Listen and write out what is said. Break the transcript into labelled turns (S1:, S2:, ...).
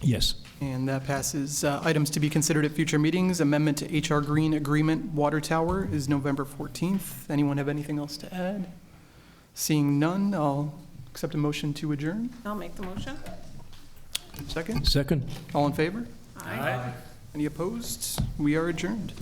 S1: Yes.
S2: And that passes. Uh, Items to be considered at future meetings, amendment to HR Green Agreement Water Tower is November 14th. Anyone have anything else to add? Seeing none, I'll accept a motion to adjourn.
S3: I'll make the motion.
S2: Second,
S1: Second?
S2: all in favor?
S3: Aye.
S2: Any opposed? We are adjourned.